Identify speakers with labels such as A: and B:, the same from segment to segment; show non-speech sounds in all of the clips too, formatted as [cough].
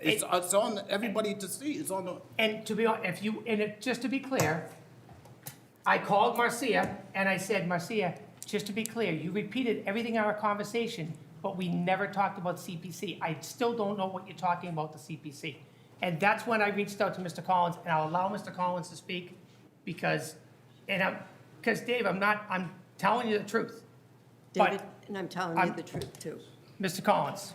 A: It's, it's on everybody to see, it's on the,
B: And to be, hon- if you, and it, just to be clear, I called Marcia and I said, Marcia, just to be clear, you repeated everything in our conversation, but we never talked about CPC. I still don't know what you're talking about the CPC. And that's when I reached out to Mr. Collins, and I'll allow Mr. Collins to speak because, and I'm, because Dave, I'm not, I'm telling you the truth. But-
C: David, and I'm telling you
B: I'm-
C: the truth, too.
B: Mr. Collins,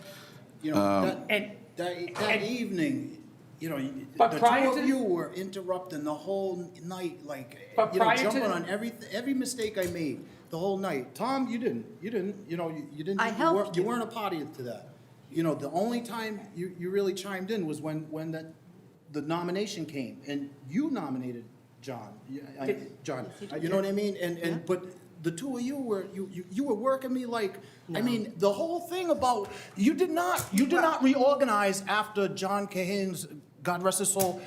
A: you know, that-
B: and,
A: that, that
B: and-
A: evening, you know, you- the
B: But prior
A: two of
B: to-
A: you were interrupting the whole night, like,
B: But
A: you know,
B: prior to-
A: jumping on every, every mistake I made the whole night. Tom, you didn't, you didn't, you know, you you didn't,
C: I
A: you
C: helped
A: weren't- you
C: you.
A: weren't a party to that. You know, the only time you, you really chimed in was when, when that, the nomination came, and you nominated John, You- I-
B: Did-
A: John, Uh, you know what I mean? And, and, but the two of you were, you, you, you were working me like, I mean, the whole thing about, you did not, you did not reorganize after John Cahane's, God rest his soul,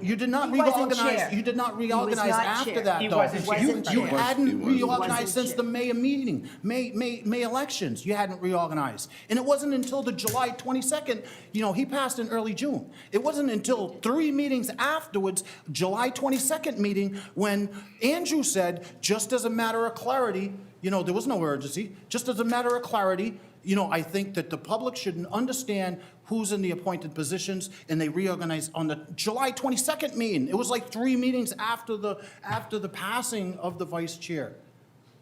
A: you did not
B: He wasn't
A: reorganize,
B: chair.
A: you did not reorganize
C: not
A: after
C: chair.
A: that,
B: He
A: though.
B: wasn't chair.
A: You,
C: Wasn't
A: you
C: chair.
D: He
A: hadn't
D: was- he
A: reorganized
C: wasn't
A: since the May meeting, May, May, May elections, you hadn't reorganized. And it wasn't until the July 22nd, you know, he passed in early June. It wasn't until three meetings afterwards, July 22nd meeting, when Andrew said, just as a matter of clarity, you know, there was no urgency, just as a matter of clarity, you know, I think that the public should understand who's in the appointed positions, and they reorganized on the July 22nd meeting. It was like three meetings after the, after the passing of the vice chair.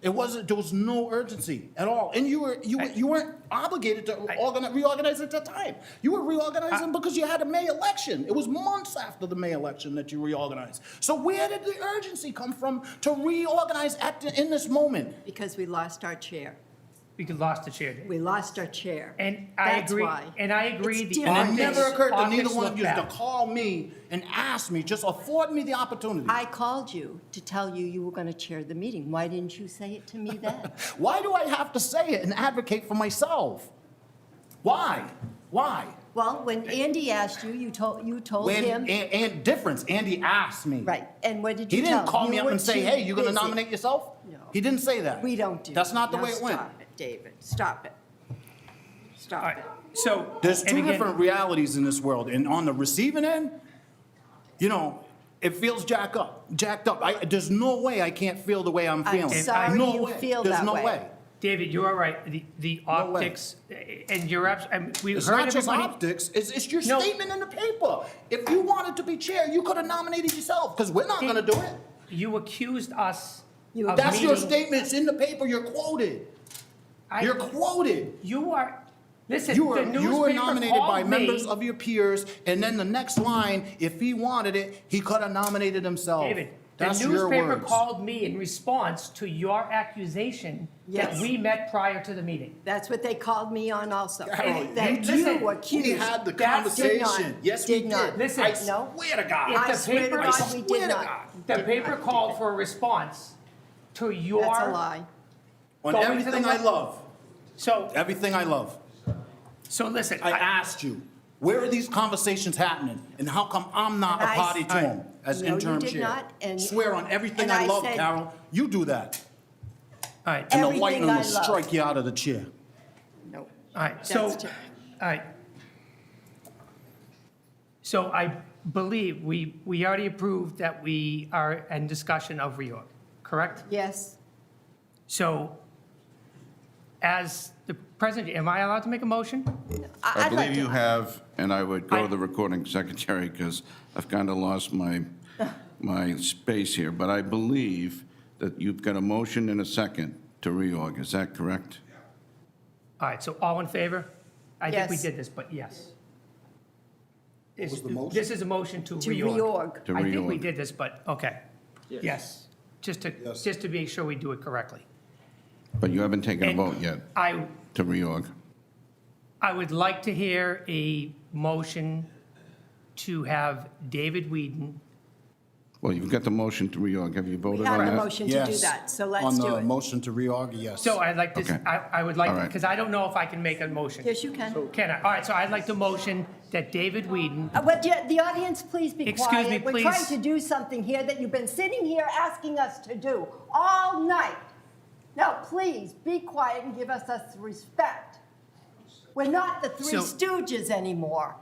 A: It wasn't, there was no urgency at all, and you were, you, were- you weren't obligated to organi- reorganize at that time. You were reorganizing because you had a May election. It was months after the May election that you reorganized. So where did the urgency come from to reorganize at, the- in this moment?
C: Because we lost our chair.
B: we could lost the chair, Dave.
C: We lost our chair.
B: And I
C: That's
B: agree,
C: why.
B: and I agree.
C: It's
B: the
C: different.
A: And it
B: optics-
A: never occurred to neither
B: optics
A: one
B: look
A: of you to
B: bad.
A: call me and ask me, just afford me the opportunity.
C: I called you to tell you you were going to chair the meeting. Why didn't you say it to me
A: [laughs]
C: then?
A: Why do I have to say it and advocate for myself? Why? Why?
C: Well, when Andy asked you, you told, you told
A: When,
C: him,
A: and, and difference, Andy asked me.
C: right, and what did
A: He
C: you tell?
A: didn't call
C: You
A: me up
C: were
A: and say,
C: too
A: hey, you gonna
C: busy.
A: nominate yourself?
C: No.
A: He didn't say that.
C: We don't do.
A: That's not the
C: that.
A: way
C: Now
A: it went.
C: Stop it, David, stop it.
B: All
C: Stop
B: right,
C: it.
B: So.
A: There's
B: and
A: two
B: again-
A: different realities in this world, and on the receiving end, you know, it feels jacked up, jacked up. I, there's no way I can't feel the way I'm
C: I'm
A: feeling.
C: sorry
A: No
C: you
A: way.
C: feel
A: There's
C: that
A: no
C: way.
B: David, you are right. The, the
A: No way.
B: optics, and you're abs, and we
A: It's
B: heard
A: not just
B: everybody.
A: optics, it's, it's your
B: No.
A: statement in the paper. If you wanted to be chair, you could have nominated yourself, because we're not gonna do it.
B: You accused us
C: You
B: of
A: That's your
B: meeting-
A: statement, it's in the paper, you're quoted.
B: I-
A: You're quoted.
B: You are, listen,
A: You were,
B: the
A: you were
B: newspaper
A: nominated by
B: called
A: members
B: me.
A: of your peers, and then the next line, if he wanted it, he could have nominated himself.
B: David, the
A: That's your
B: newspaper
A: words.
B: called me in response to your accusation that
C: Yes.
B: we met prior to the meeting.
C: That's what they called me
A: [laughs]
C: on also.
A: Carol,
C: That
A: you
B: did. Listen,
C: you
B: we
C: accused.
A: We had the
B: That's- did
C: not-
A: conversation. Yes, we
C: did
A: did.
C: not.
B: Listen,
A: I
C: no.
A: swear to God.
B: If
C: I
B: the
C: swear to
B: paper- I
C: God, we
A: swear to
C: did
A: God.
C: not.
B: The
C: Did
B: paper
C: not.
B: called for a response to your.
C: That's a lie.
A: On
B: Going to the
A: everything I
B: left.
A: love,
B: So,
A: everything I love,
B: so listen.
A: I asked you, where are these conversations happening? And how come I'm not a
C: And I-
A: party to them as
C: No, you
A: interim
C: did
A: chair?
C: not, and-
A: Swear on everything
C: and
A: I
C: I
A: love,
C: said-
A: Carol, you do that.
B: All right,
A: And the
C: Everything
A: lightning
C: I
A: will
C: love.
A: strike you out of the chair.
C: No.
B: all right, so, all
C: That's ter-
B: right. So I believe we, we already approved that we are in discussion of reorg, correct?
C: Yes,
B: So as the president, am I allowed to make a motion?
C: I-
D: I
C: I'd like
D: believe you
C: to.
D: have, and I would
B: I-
D: go to the recording secretary because I've kind of lost my, my space here, but I believe that you've got a motion and a second to reorg, is that correct?
B: All right, so all in favor? I think we
C: Yes.
B: did this, but yes. This-
A: was the motion?
B: This is a motion to
C: To
B: reorg.
C: reorg.
D: To
B: I think we
D: reorg.
B: did this, but, okay. Yes, just to,
A: Yes.
B: just to make sure we do it correctly.
D: But you haven't taken a
B: And
D: vote yet
B: I
D: to reorg.
B: I would like to hear a motion to have David Whedon,
D: Well, you've got the motion to reorg, have
C: We
D: you voted
C: have
D: on
C: a
D: that?
C: motion to do that, so let's do
A: On the
C: it.
A: motion to reorg, yes.
B: so I'd like to,
D: Okay.
B: I, I would like,
D: All right.
B: because I don't know if I can make a motion.
C: Yes, you can.
B: Can I? All right, so I'd like to motion that David Whedon,
C: Uh, But the- the audience, please be
B: Excuse
C: quiet.
B: me,
C: We're trying
B: please.
C: to do something here that you've been sitting here asking us to do all night. Now, please be quiet and give us us respect. We're not the Three
B: So-
C: Stooges anymore.